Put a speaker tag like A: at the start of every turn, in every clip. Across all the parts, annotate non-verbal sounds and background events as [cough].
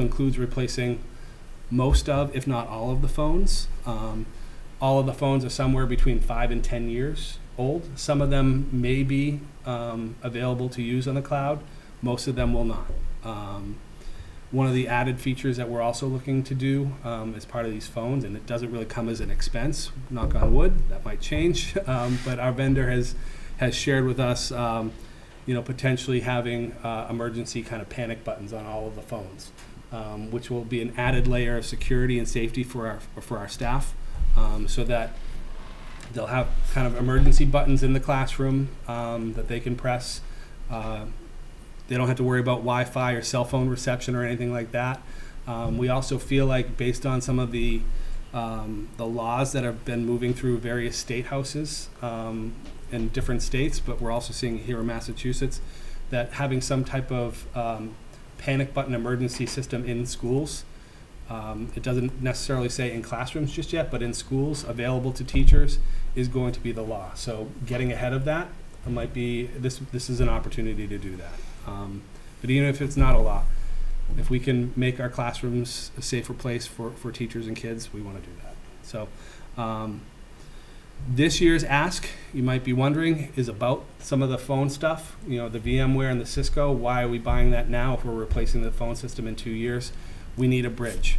A: includes replacing most of, if not all of the phones. Um, all of the phones are somewhere between five and 10 years old. Some of them may be um, available to use on the cloud, most of them will not. Um, one of the added features that we're also looking to do um, as part of these phones, and it doesn't really come as an expense, knock on wood, that might change, [laughs] um, but our vendor has, has shared with us, um, you know, potentially having uh, emergency kind of panic buttons on all of the phones um, which will be an added layer of security and safety for our for our staff, um, so that they'll have kind of emergency buttons in the classroom um, that they can press. Uh, they don't have to worry about Wi-Fi or cell phone reception or anything like that. Um, we also feel like, based on some of the um, the laws that have been moving through various state houses um, in different states, but we're also seeing here in Massachusetts that having some type of um, panic button emergency system in schools. Um, it doesn't necessarily say in classrooms just yet, but in schools available to teachers is going to be the law. So getting ahead of that it might be this. This is an opportunity to do that. Um, but even if it's not a law, if we can make our classrooms a safer place for, for teachers and kids, we want to do that. So um, this year's ask, you might be wondering, is about some of the phone stuff, you know, the VMware and the Cisco. Why are we buying that now if we're replacing the phone system in two years? We need a bridge.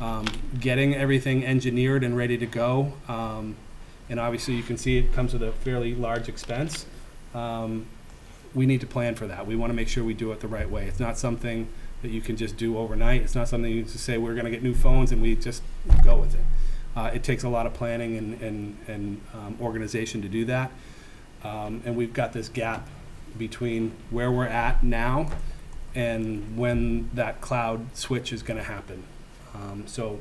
A: Um, getting everything engineered and ready to go, um, and obviously you can see it comes with a fairly large expense. Um, we need to plan for that. We want to make sure we do it the right way. It's not something that you can just do overnight. It's not something you just say, we're going to get new phones and we just go with it. Uh, it takes a lot of planning and, and, and um, organization to do that. Um, and we've got this gap between where we're at now and when that cloud switch is going to happen. Um, so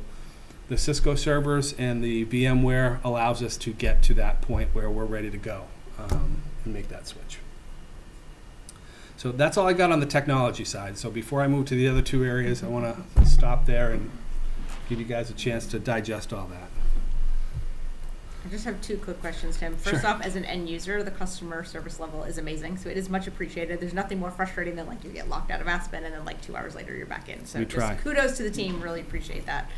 A: the Cisco servers and the VMware allows us to get to that point where we're ready to go um, and make that switch. So that's all I got on the technology side. So before I move to the other two areas, I want to stop there and give you guys a chance to digest all that.
B: I just have two quick questions, Tim. First
A: Sure.
B: off, as an end user, the customer service level is amazing, so it is much appreciated. There's nothing more frustrating than like you get locked out of Aspen and then like two hours later you're back in. So
A: We
B: just
A: try.
B: kudos to the team. Really appreciate that.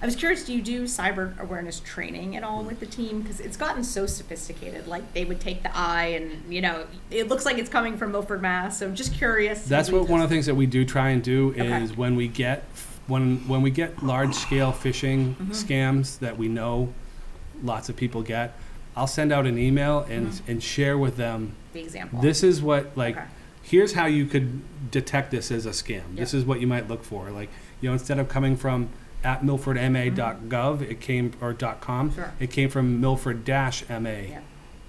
B: I was curious, do you do cyber awareness training at all with the team? Because it's gotten so sophisticated. Like they would take the eye, and you know, it looks like it's coming from Milford, Mass. So I'm just curious.
A: That's what one of the things that we do try and do
B: Okay.
A: is when we get when when we get large scale phishing
B: Mhm.
A: scams that we know lots of people get, I'll send out an email and and share with them
B: the example.
A: this is what like
B: Mm-hmm. Okay.
A: here's how you could detect this as a scam. This is what you might look for. Like, you know, instead of coming from at milfordma.gov, it came or .com,
B: Mm-hmm. Sure.
A: it came from milford-ma.com.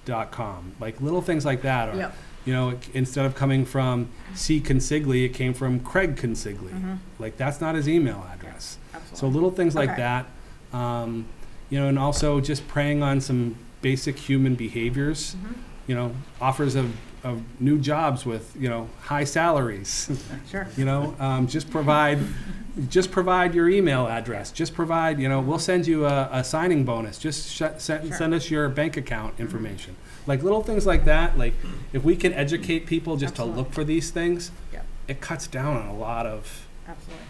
A: Like little things like that or
B: Yep.
A: you know, it- instead of coming from C. Consigli, it came from Craig Consigli.
B: Mhm.
A: Like that's not his email address. So
B: Absolutely.
A: little things like
B: Okay.
A: that, um, you know, and also just preying on some basic human behaviors.
B: Mhm.
A: You know, offers of, of new jobs with you know high salaries.
B: Sure.
A: You know, um, just provide, just provide your email address. Just provide, you know, we'll send you a, a signing bonus. Just sh- send,
B: Sure.
A: send us your bank account information. Like little things like that. Like if we can educate people just to
B: Absolutely.
A: look for these things,
B: Yeah.
A: it cuts down on a lot of
B: Absolutely.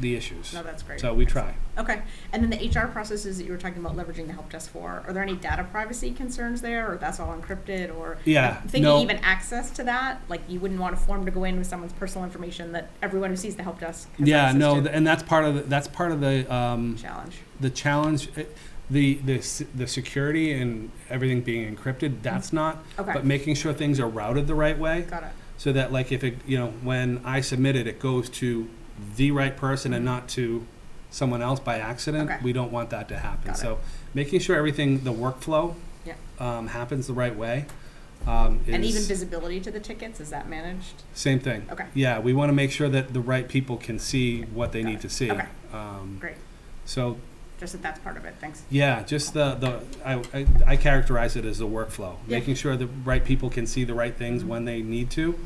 A: the issues.
B: No, that's great.
A: So we try.
B: Okay, and then the HR processes that you were talking about leveraging the help desk for, are there any data privacy concerns there, or that's all encrypted, or?
A: Yeah,
B: I'm Thinking
A: no.
B: even access to that, like you wouldn't want a form to go in with someone's personal information that everyone who sees the help desk has
A: Yeah,
B: access
A: no,
B: to.
A: th- and that's part of the, that's part of the um,
B: Challenge,
A: the challenge. eh, The, the s- the security and everything being encrypted
B: Mm-hmm.
A: that's not but
B: okay,
A: making sure things are routed the right way
B: got it,
A: so that like if it you know when i submit it it goes to the right person and not to someone else by accident
B: Mm-hmm. Okay.
A: we don't want that to happen
B: Got it.
A: so making sure everything the workflow
B: Yeah.
A: um, happens the right way um, is
B: and even visibility to the tickets, is that managed?
A: same thing
B: Okay,
A: yeah we want to make sure that the right people can see what they
B: Got
A: need
B: it.
A: to see
B: Okay.
A: um,
B: Great.
A: so
B: just that that's part of it, thanks.
A: yeah, just the, the I, I, I characterize it as the workflow.
B: Yeah.
A: Making sure the right people can see the right things
B: Mhm.
A: when they need to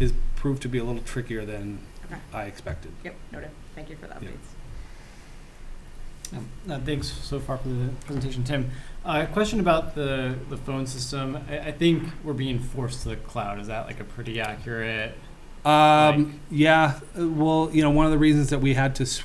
A: is proved to be a little trickier than
B: Okay.
A: I expected.
B: Yep, noted, thank you for the
A: Yeah.
B: updates.
C: Um, uh, Thanks so far for the presentation, Tim. Uh, Question about the, the phone system. I, I think we're being forced to the cloud. Is that like a pretty accurate
A: Um, yeah, uh, well, you know, one of the reasons that we had to s-